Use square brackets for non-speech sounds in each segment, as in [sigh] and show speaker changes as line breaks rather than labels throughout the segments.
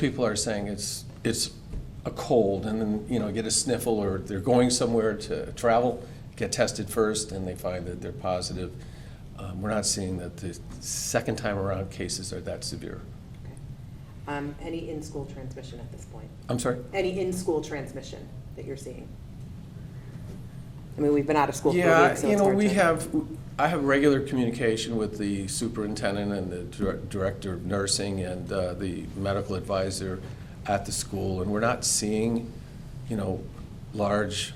People are saying it's, it's a cold and then, you know, get a sniffle or they're going somewhere to travel, get tested first and they find that they're positive. Um, We're not seeing that the second time around cases are that severe.
Okay. Um, Any in-school transmission at this point?
I'm sorry?
Any in-school transmission that you're seeing? I mean, we've been out of school for a week,
Yeah,
so
you
it's
know,
hard
we
to-
have, I have regular communication with the superintendent and the dir- director of nursing and uh, the medical advisor at the school, and we're not seeing, you know, large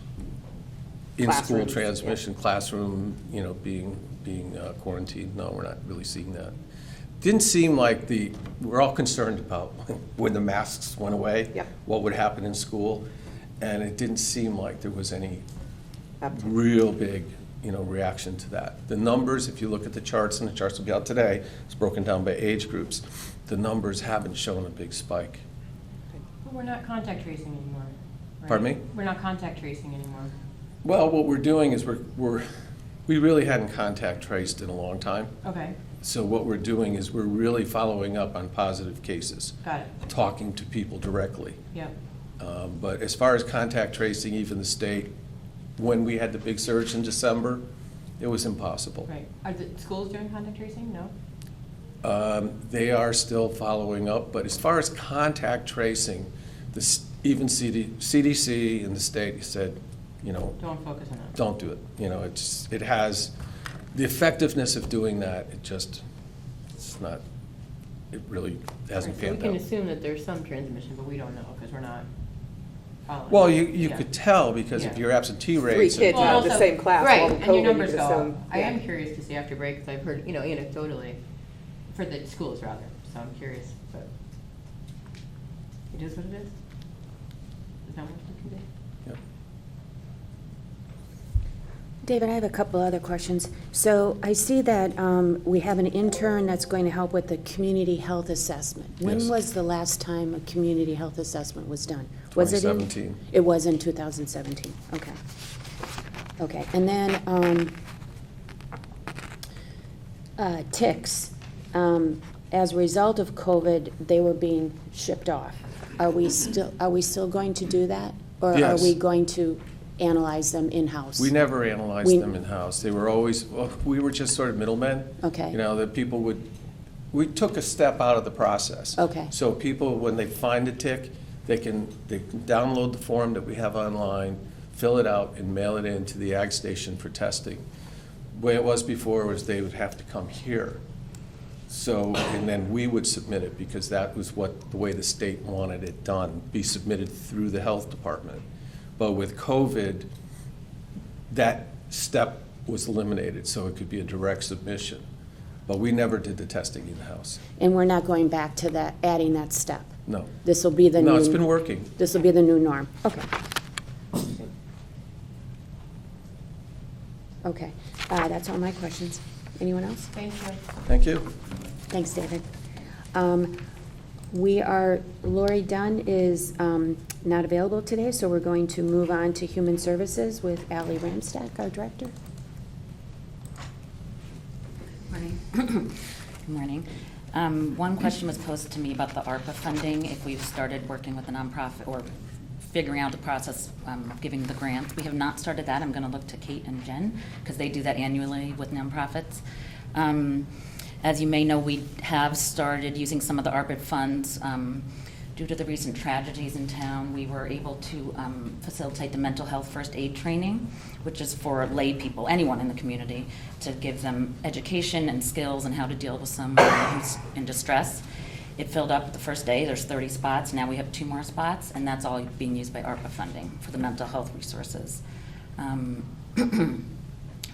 in-school
Classrooms, yeah.
transmission, classroom, you know, being, being uh, quarantined. No, we're not really seeing that. Didn't seem like the, we're all concerned about [laughs] when the masks went away.
Yep.
What would happen in school, and it didn't seem like there was any
up to-
real big, you know, reaction to that. The numbers, if you look at the charts, and the charts will be out today, it's broken down by age groups, the numbers haven't shown a big spike.
But We're not contact tracing anymore. right?
Pardon me?
We're not contact tracing anymore.
Well, what we're doing is we're, we're, we really hadn't contact traced in a long time.
Okay,
So what we're doing is we're really following up on positive cases,
got it.
talking to people directly.
Yep.
Um, But as far as contact tracing, even the state, when we had the big surge in December, it was impossible.
Right. Are the schools doing contact tracing? No?
Um, They are still following up, but as far as contact tracing, the s- even CD CDC and the state said, you know,
Don't focus on that.
don't do it. You know, it's, it has, the effectiveness of doing that, it just, it's not, it really hasn't
So We
panned
can
out.
assume that there's some transmission, but we don't know because we're not following.
Well, you, you
Yeah.
could tell because if
Yeah.
your absentee
Three
rates.
kids
Well,
out of the
also-
same class, all
Right,
the
and your
COVID, you
numbers
could
go up.
assume-
I am
yeah.
curious to see after break, because I've heard, you know, anecdotally, for the schools rather, so I'm curious, but it is what it is. Is that what you can do?
Yep.
David, I have a couple other questions. So I see that um, we have an intern that's going to help with the community health assessment.
Yes.
When was the last time a community health assessment was done? Was it in-
2017.
It was in 2017, okay. Okay, and then um, uh, ticks. um, As a result of COVID, they were being shipped off. Are we still, are we still going to do that? Or are
Yes.
we going to analyze them in-house?
We never analyzed
We-
them in-house. They were always, well, we were just sort of middlemen.
Okay.
You know, that people would, we took a step out of the process.
Okay.
So people, when they find a tick, they can, they can download the form that we have online, fill it out, and mail it in to the ag station for testing. Way it was before was they would have to come here. So, and then we would submit it, because that was what, the way the state wanted it done, be submitted through the health department. But with COVID, that step was eliminated, so it could be a direct submission. But we never did the testing in-house,
And we're not going back to that, adding that step?
no.
This will be the new...
No, it's been working.
This will be the new norm, okay. Okay, Uh, that's all my questions. Anyone else?
Thank you.
Thank you.
Thanks, David. Um, We are, Lori Dunn is um, not available today, so we're going to move on to Human Services with Ally Ramstack, our director.
Morning. [coughs] Good morning. Um, One question was posed to me about the ARPA funding, if we've started working with the nonprofit or figuring out the process um, of giving the grants. We have not started that. I'm going to look to Kate and Jen, because they do that annually with nonprofits. Um, As you may know, we have started using some of the ARPA funds. um, Due to the recent tragedies in town, we were able to um, facilitate the mental health first aid training, which is for lay people, anyone in the community, to give them education and skills and how to deal with someone who's in distress. It filled up the first day, there's 30 spots, now we have two more spots, and that's all being used by ARPA funding for the mental health resources. Um, [clears throat]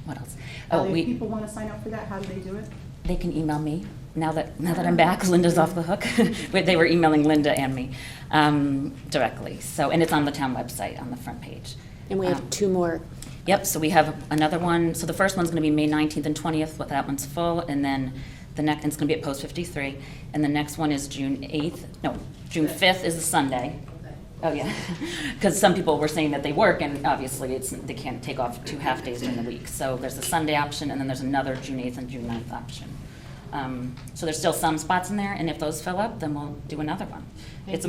What else? Oh,
If
we-
people want to sign up for that, how do they do it?
they can email me now that now that I'm back. Linda's off the hook. [laughs] Wait, they were emailing Linda and me um, directly. So and it's on the town website on the front page.
And we have
Um,
two more,
Yep. So we have another one. So the first one's going to be May 19th and 20th. But that one's full, and then the next it's going to be at Post 53, and the next one is June 8th. No, June 5th is a Sunday. Oh yeah, [laughs] because some people were saying that they work, and obviously it's they can't take off two half days during the week. So there's a Sunday option, and then there's another June 8th and June 9th option. Um, So there's still some spots in there, and if those fill up, then we'll do another one.
Thank
It's
you.
a